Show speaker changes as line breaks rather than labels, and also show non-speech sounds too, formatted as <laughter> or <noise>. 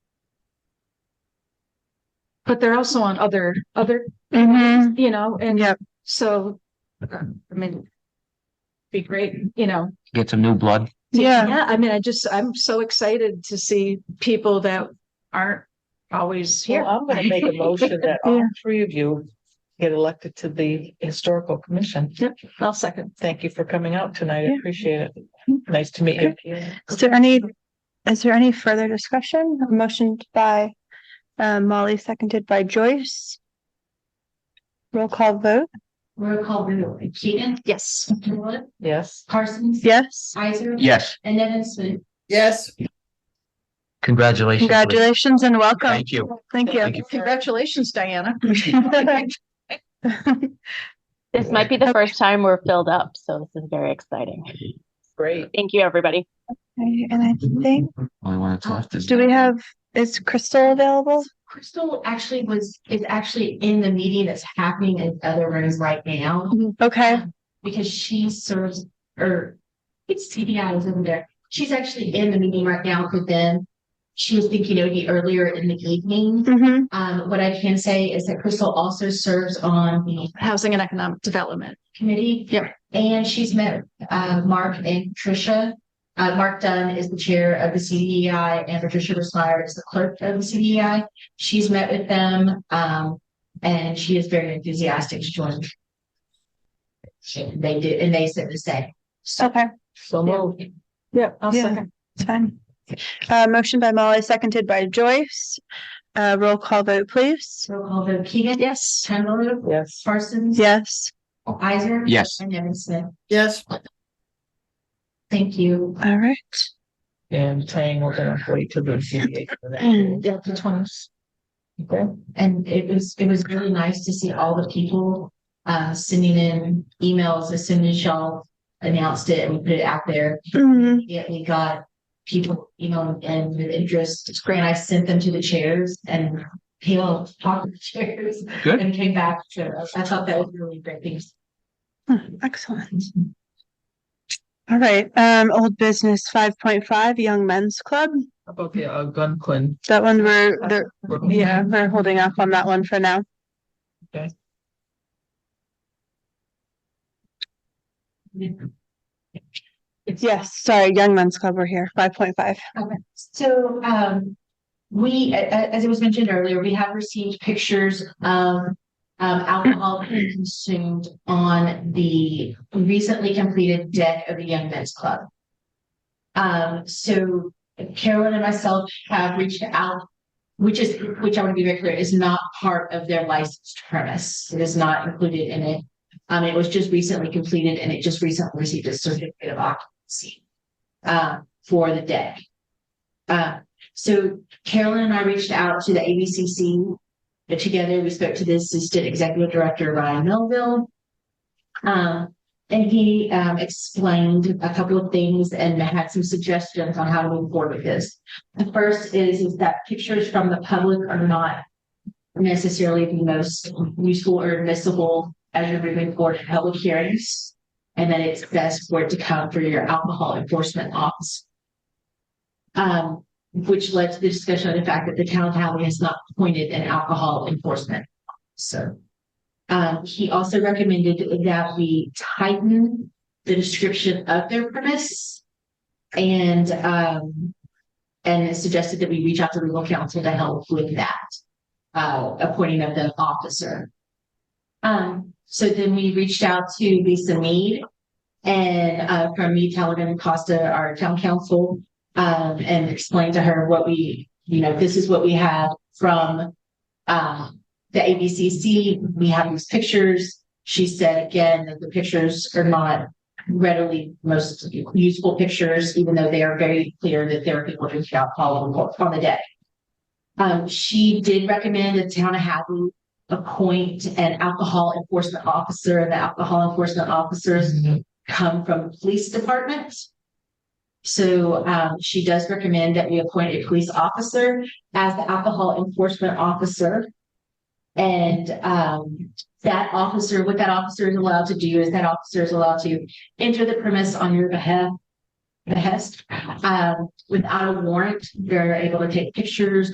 but they're also on other, other,
Mhm.
you know, and
Yep.
so, uh, I mean, be great, you know,
get some new blood.
Yeah,
Yeah, I mean, I just, I'm so excited to see people that aren't always
Well,
here.
I'm gonna make a motion that
Yeah.
all three of you get elected to the historical commission.
I'll second.
Thank you for coming out tonight. I
Yeah.
appreciate it. Nice to meet you.
is there any, is there any further discussion? A Motion by uh, Molly, seconded by Joyce. Roll call vote,
Roll call vote, Keaton,
<laughs> Yes.
Woollett,
Yes.
Parsons.
yes,
Isaac.
Yes,
And Nevin Smith.
yes,
congratulations. Liz.
congratulations and welcome,
Thank you.
thank you.
Thank you.
Congratulations, Diana.
This might be the first time we're filled up, so this is very exciting.
Great.
Thank you, everybody.
Okay, <laughs> And I think,
Only one that's left is.
do we have, is Crystal available?
Crystal actually was, is actually in the meeting that's happening in other rooms right now
Okay,
because she serves, or it's CDI is over there. She's actually in the meeting right now, but then she was thinking it would be earlier in the evening.
hmm
Um, what I can say is that Crystal also serves on the
Housing and Economic Development.
committee.
Yep.
And she's met uh Mark and Patricia. Uh, Mark Dunn is the chair of the CDEI and Patricia Rosmeyer is the clerk of the CDEI. She's met with them um and she is very enthusiastic to join. They did, and they said the same. So
okay,
So moved.
Yeah. I'll
Yeah.
second.
it's fine. Uh, motion by Molly, seconded by Joyce. Uh, roll call vote, please.
roll call vote Keegan,
Yes.
Chandler,
Yes.
Parsons.
Yes,
Isaac.
Yes.
And Nevin Smith.
yes.
Thank you.
all right.
And Tang, we're gonna wait till the CBA for that.
Yeah, the twenties.
Okay.
And it was, it was really nice to see all the people uh sending in emails as soon as y'all announced it and we put it out there.
Mhm.
Yeah, we got people, you know, and with interest. It's great. I sent them to the chairs and people talked to the chairs
Good.
and came back to us. I thought that was really great things.
Hmm, Excellent. All right, um, old business five point five, Young Men's Club.
How About the uh, Algonquin.
That one we're, they're,
We're-
yeah, we're holding off on that one for now. Yes, sorry, Young Men's Club, we're here, five point five.
Okay, so, um, we, a- a- as it was mentioned earlier, we have received pictures of, um, alcohol being consumed on the recently completed deck of the Young Men's Club. Um, so Carolyn and myself have reached out, which is, which I want to be very clear, is not part of their licensed premise. It is not included in it. Um, it was just recently completed and it just recently received a certificate of occupancy, uh, for the deck. Uh, so Carolyn and I reached out to the ABCC. but Uh, Together, we spoke to the Assistant Executive Director, Ryan Melville. Um, and he, um, explained a couple of things and had some suggestions on how to move forward with this. The first is, is that pictures from the public are not necessarily the most useful or admissible as you're moving forward in public hearings. And that it's best for it to come through your alcohol enforcement office. Um, which led to the discussion of the fact that the town of Howard has not appointed an alcohol enforcement. So. Um, he also recommended that we tighten the description of their premise. And, um. And suggested that we reach out to legal counsel to help with that. Uh, appointing of the officer. Um, so then we reached out to Lisa Mead. And, uh, from Mead, Talagan, Costa, our town council um, and explain to her what we, you know, this is what we have from, um, the ABCC. We have these pictures. She said again that the pictures are not readily most useful pictures, even though they are very clear that there are people drinking alcohol on the- on the deck. Um, she did recommend the town of Hadley appoint an alcohol enforcement officer, and the alcohol enforcement officers come from police departments. So um, she does recommend that we appoint a police officer as the alcohol enforcement officer. And um, that officer, what that officer is allowed to do is that officer is allowed to enter the premise on your behalf. Behest, um, without a warrant, they're able to take pictures,